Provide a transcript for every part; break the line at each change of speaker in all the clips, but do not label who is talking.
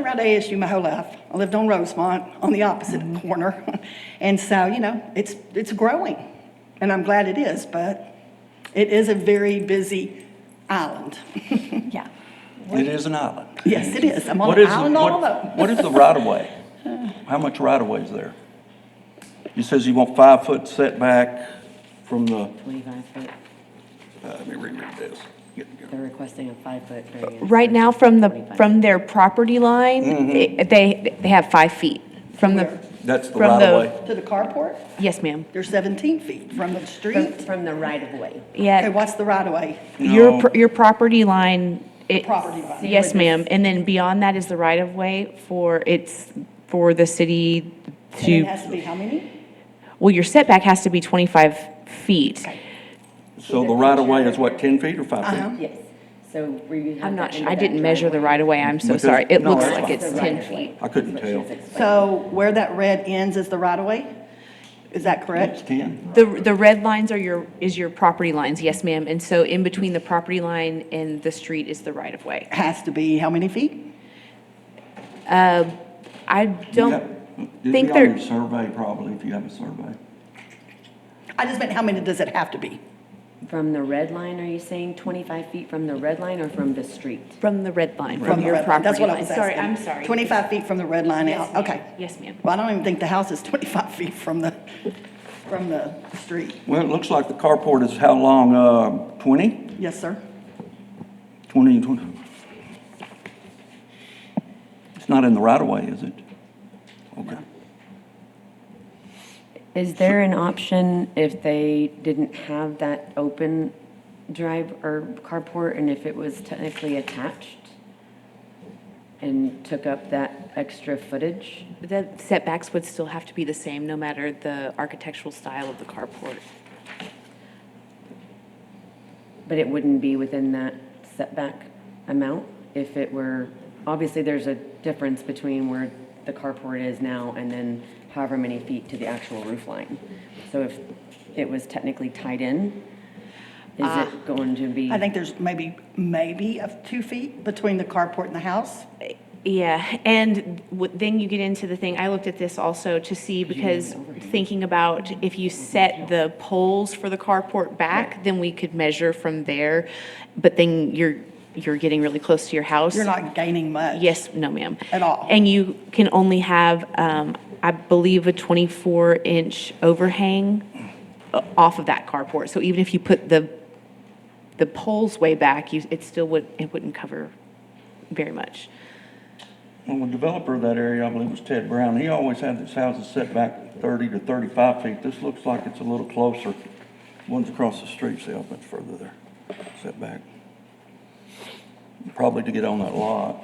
around ASU my whole life. I lived on Rosemont, on the opposite
Mm-hmm.
corner. And so, you know, it's, it's growing, and I'm glad it is, but it is a very busy island.
Yeah.
It is an island.
Yes, it is. I'm on
What
an
is the-
island all
what-
alone.
What is the right-of-way? How much right-of-way is there? He says you want five-foot setback from the,
25 foot,
uh, let me reread this.
they're requesting a five-foot variance.
Right now, from the,
25.
from their property
Mm-hmm.
line, it- they, they have five feet from the,
That's the
From the-
right-of-way?
To the carport,
yes, ma'am.
they're 17 feet from the
From-
street.
From the right-of-way.
Okay,
Yeah,
what's the right-of-way?
your,
No.
pr- your property line, it,
Property line.
yes, ma'am. And then beyond that is the right of way for, it's for the city
And it
to,
has to be how many?
well, your setback has to be 25 feet.
So the right-of-way is what, 10 feet or five feet?
Uh-huh.
Yes, so where you have.
I'm not,
the
su-
end
I
of that
didn't measure the
driveway.
right of way, I'm so
Because-
sorry. It
no,
looks
that's
like
fine.
it's
The
10
right-of-way.
feet.
I couldn't
That's what she
tell.
was explaining.
So where that red ends is the right-of-way? Is that
It's
correct?
10.
The, the red lines are your, is your property lines, yes, ma'am. And so in between the property line and the street is the right of way.
Has to be how many feet?
I
Yeah.
don't,
It'd
think
be on
they're-
your survey probably, if you have a survey.
I just meant how many does it have to be?
From the red line, are you saying 25 feet from the red line or from the street?
from the red line,
From
from
the
your
red line.
property line.
That's what I was asking.
Sorry, I'm sorry.
25 feet from the red line
Yes,
out,
ma'am.
okay.
Yes, ma'am.
Well, I don't even think the house is 25 feet from the, from the street.
Well, it looks like the carport is how long, uh, 20?
Yes, sir.
20 and 20? It's not in the right-of-way, is it? Okay.
Is there an option if they didn't have that open drive or carport and if it was technically attached? And took up that extra footage?
The setbacks would still have to be the same, no matter the architectural style of the carport.
But it wouldn't be within that setback amount if it were, obviously, there's a difference between where the carport is now and then however many feet to the actual roof line. So if it was technically tied in, is it going to be?
Uh, I think there's maybe, maybe of two feet between the carport and the house.
Yeah, and w- then you get into the thing, I looked at this also to see, because thinking about if you set the poles for the carport back, then we could measure from there, but then you're, you're getting really close to your house.
You're not gaining much.
Yes, no, ma'am.
At all.
And you can only have, um, I believe, a 24-inch overhang uh, off of that carport. So even if you put the, the poles way back, you, it still would, it wouldn't cover very much.
Well, the developer of that area, I believe, was Ted Brown. He always had his houses set back thirty to thirty-five feet. This looks like it's a little closer. One's across the street, so much further there, set back. Probably to get on that lot.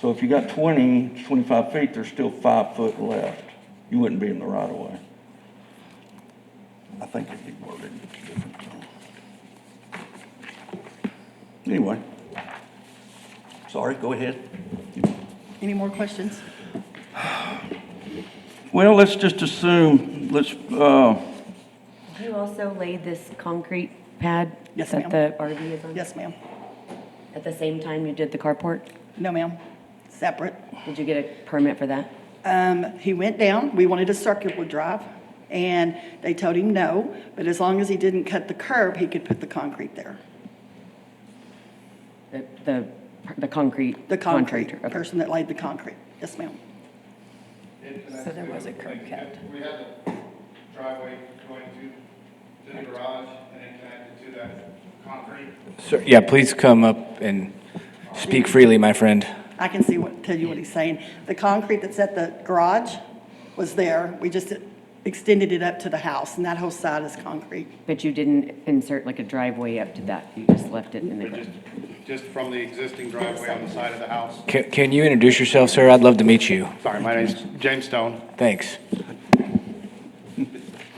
So if you got 20, 25 feet, there's still five foot left. You wouldn't be in the right of way. I think it'd be worded different. so. Anyway. Sorry, go ahead.
Any more questions?
Well, let's just assume, let's, uh,
You also laid this concrete pad?
Yes, ma'am.
That the RV is on?
Yes, ma'am.
At the same time you did the carport?
No, ma'am. Separate.
Did you get a permit for that?
Um, he went down, we wanted a circular drive, and they told him no, but as long as he didn't cut the curb, he could put the concrete there.
The, the, the concrete?
The concrete,
contractor, okay.
person that laid the concrete. Yes, ma'am.
So there was a curb cut. We had the driveway going to, to the garage and then connected to that concrete.
Sir, yeah, please come up and speak freely, my friend.
I can see what, tell you what he's saying. The concrete that's at the garage was there, we just extended it up to the house, and that whole side is concrete.
But you didn't insert like a driveway up to that, you just left it in the
But
ground?
just, just from the existing driveway on the side of the house.
Can, can you introduce yourself, sir? I'd love to meet you.
Sorry, my name's James Stone.
Thanks.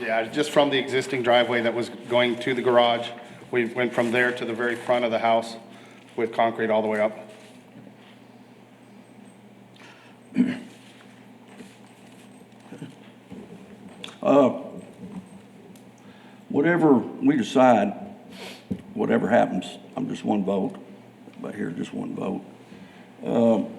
Yeah, just from the existing driveway that was going to the garage. We went from there to the very front of the house with concrete all the way up.
whatever we decide, whatever happens, I'm just one vote, but here, just one vote. Um,